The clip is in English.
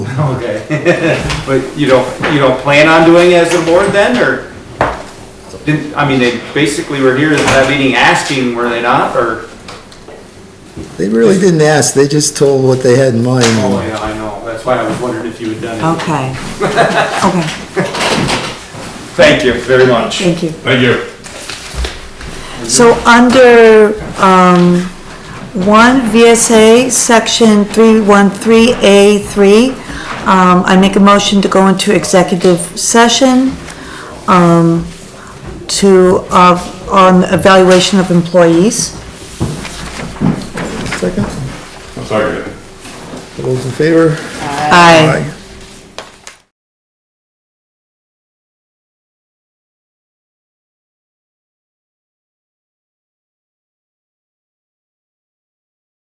Okay. But you don't, you don't plan on doing it as a board then, or? Didn't, I mean, they basically were here at that meeting asking, were they not, or? They really didn't ask, they just told what they had in Oh, mind. yeah, I know, that's why I was wondering if you had done it. Okay. Okay, Thank you very much. thank you. Thank you. So under, um, one VSA, section three one three A three, um, I make a motion to go into executive session, um, to, uh, on evaluation of employees. Second, I'm sorry. all those in favor? Aye.